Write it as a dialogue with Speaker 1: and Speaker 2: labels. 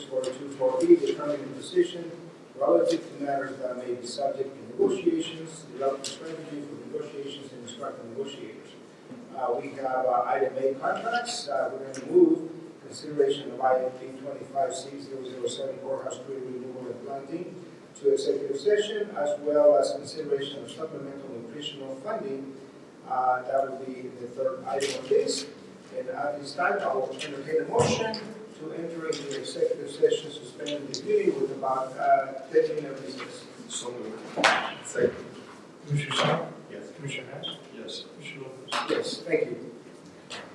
Speaker 1: for B, determining the position relative to matters that may be subject to negotiations, developing strategy for negotiations, and instructing negotiators. Uh, we have, uh, item A contracts, uh, we're gonna move consideration of item B twenty-five C 7 courthouse tree removal and planting to executive session, as well as consideration of supplemental nutritional funding. Uh, that would be the third item on this. And uh, at this time, I will entertain a motion to enter into executive session, suspend the duty with about, uh, ten minute recess.
Speaker 2: So moved. Second.
Speaker 3: Commissioner Sal?